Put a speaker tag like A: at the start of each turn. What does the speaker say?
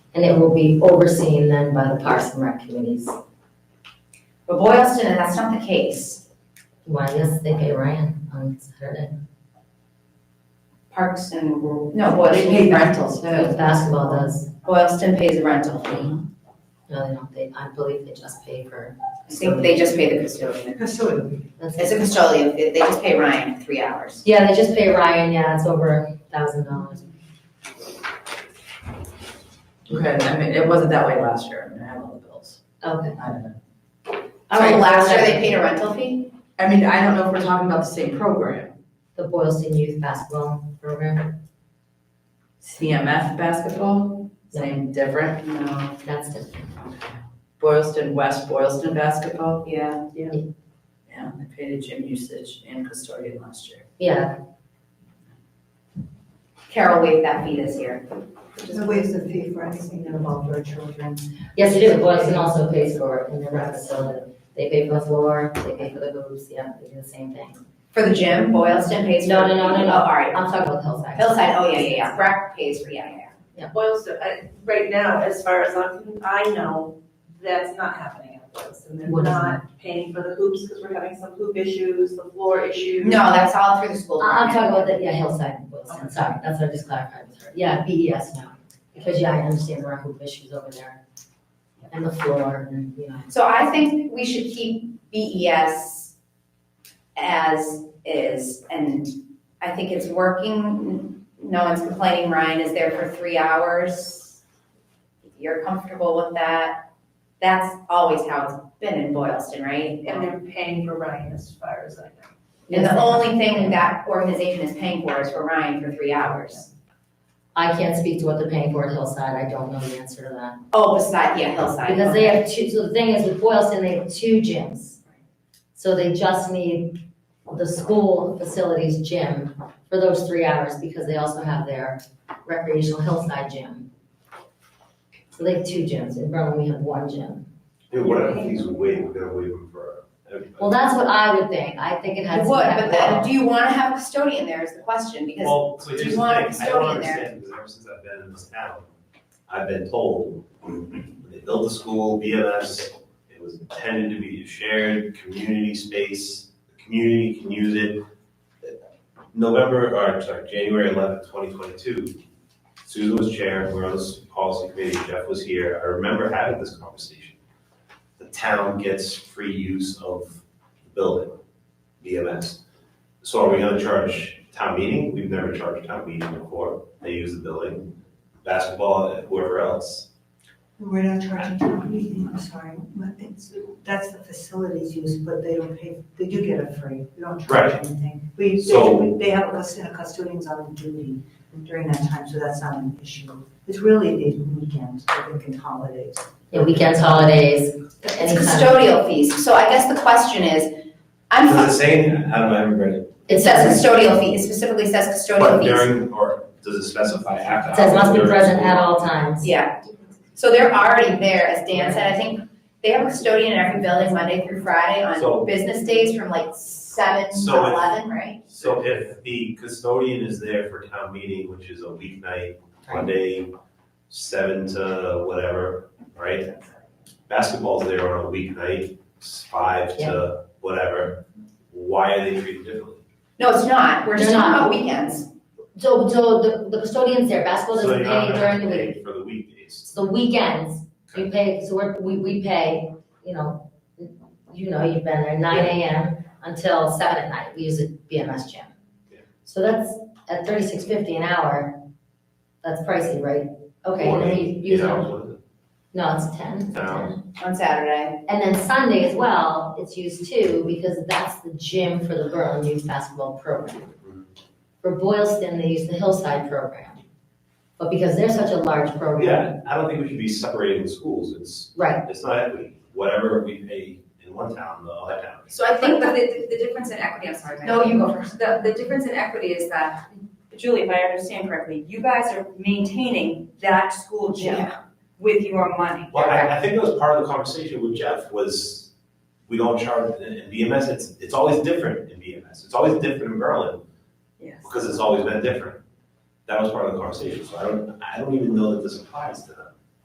A: and it will be overseen then by the Parks and Rec committees.
B: But Boylston, that's not the case.
A: Why, yes, they pay Ryan on Saturday.
C: Parks and rural.
B: No, Boylston pays rentals.
A: But Basketball does,
B: Boylston pays a rental fee.
A: no, they don't, they, I believe they just pay for.
B: I think they just pay the custodian.
C: Custodian.
A: that's
B: It's a
A: it.
B: custodian, fee. they just pay Ryan three hours.
A: Yeah, they just pay Ryan, yeah, it's over a thousand dollars.
C: Okay, I mean, it wasn't that way last year, I mean, I have all the bills,
A: Okay.
C: I don't know.
A: All right.
B: So last year they paid a rental fee?
C: I mean, I don't know if we're talking about the same program,
A: The Boylston Youth Basketball Program,
C: CMF basketball, same, different,
B: No.
A: that's different.
C: Boylston, West Boylston basketball,
B: Yeah.
C: yeah, they paid a gym usage and custodian last year.
A: Yeah,
B: Carol waived that fee this year.
D: There's waves of fee for anything that involves our children.
A: yes, it is, Boylston also pays for it in their rec facility. They pay for the floor, they pay for the hoops, yeah, they do the same thing.
B: For the gym, Boylston pays.
A: No, no, no, no, no.
B: Oh, all right.
A: I'm talking about Hillside.
B: Hillside, oh, yeah, yeah, yeah. Breck pays for, yeah, yeah, yeah.
E: Boylston, I, right now, as far as I'm, I know, that's not happening at Boylston. They're
A: What is
E: not paying for the hoops because we're having some hoop issues, the floor issues.
B: No, that's all through the school.
A: I- I'm
B: department.
A: talking about the, yeah, Hillside Boylston, sorry, that's what I just clarified with her. Yeah, BES now, because yeah, I understand there are hoop issues over there. And the floor and, you know,
B: So I think we should keep BES as is, and I think it's working. No one's complaining, Ryan is there for three hours. If You're comfortable with that? That's always how it's been in Boylston, right?
E: And they're paying for Ryan as far as I know.
B: And
A: Yes.
B: the only thing that organization is paying for is for Ryan for three hours.
A: I can't speak to what they're paying for at Hillside, I don't know the answer to that.
B: Oh, beside, yeah, Hillside.
A: Because they have two, so the thing is with Boylston, they have two gyms. So they just need the school facilities gym for those three hours because they also have their recreational hillside gym. So they have two gyms, in Berlin we have one gym.
F: Yeah, what if he's waiting, they're waiting for.
A: Well, that's what I would think. I think it
B: You
A: has.
B: would,
A: to
B: but then,
A: happen.
B: do you wanna have a custodian there is the question, because
F: Well, so
B: do you
F: here's the thing,
B: want a
F: I don't
B: custodian there?
F: understand, because ever since I've been in this town, I've been told, when they built the school, BMS, it was intended to be a shared community space, the community can use it. November, or sorry, January eleventh, twenty twenty-two, Susan was chair, we were on this policy committee, Jeff was here, I remember having this conversation. The town gets free use of the building, BMS. So are we gonna charge town meeting? We've never charged town meeting before. They use the building, basketball, whoever else.
D: We're not charging town meeting, I'm sorry, but it's, that's the facilities use, but they don't pay, they do get it free, we don't charge
F: Right.
D: anything. We, they,
F: So-
D: do- they have a custodian, a custodian's on duty during that time, so that's not an issue. It's really the weekends, I think, and holidays.
A: Yeah, weekends, holidays,
B: it's
A: any kind of-
B: custodial fees, so I guess the question is, I'm.
F: Does it say, how do I remember it?
A: it
B: It says
A: says,
B: custodial fee, it specifically says custodial
F: But
B: fees.
F: during, or does it specify after?
A: it says must be
F: hours or-
A: present at all times.
B: Yeah, so they're already there, as Dan said, I think they have a custodian in every building Monday through Friday on
F: So-
B: business days from like seven to
F: So if-
B: eleven, right?
F: So if the custodian is there for town meeting, which is a weeknight, Monday, seven to whatever, right? Basketball's there on a weeknight, five to whatever. Why are they treated differently?
B: No, it's not, we're just
A: They're
B: talking
A: not.
B: about weekends.
A: So, so the, the custodian's there, basketball
F: So
A: doesn't
F: you're
A: pay
F: not
A: any
F: gonna
A: during the
F: pay
A: week.
F: For the weekdays.
A: It's the weekends, we
F: Okay.
A: pay, so we're, we, we pay, you know, you know, you've been there nine AM until seven at night, we use a BMS gym.
F: Yeah.
A: So that's at thirty-six fifty an hour, that's pricey, right? Okay,
F: Or
A: and then
F: eight-
A: you, you,
F: eight hours, what is it?
A: no, it's ten.
F: No.
B: On Saturday,
A: And then Sunday as well, it's used too, because that's the gym for the Berlin youth basketball program. For Boylston, they use the Hillside program. But because they're such a large program,
F: Yeah, I don't think we should be separating schools, it's,
A: right,
F: it's not equity, whatever we pay in one town, the other town.
G: So I think that the, the difference in equity, I'm sorry, Diane.
B: No, you go first.
G: The, the difference in equity is that, Julie, if I understand correctly, you guys are maintaining that school gym with your money.
F: Well, I, I think that was part of the conversation with Jeff was, we don't charge, in in BMS, it's, it's always different in BMS, it's always different in Berlin,
G: Yes.
F: because it's always been different. That was part of the conversation, so I don't, I don't even know that this applies to them.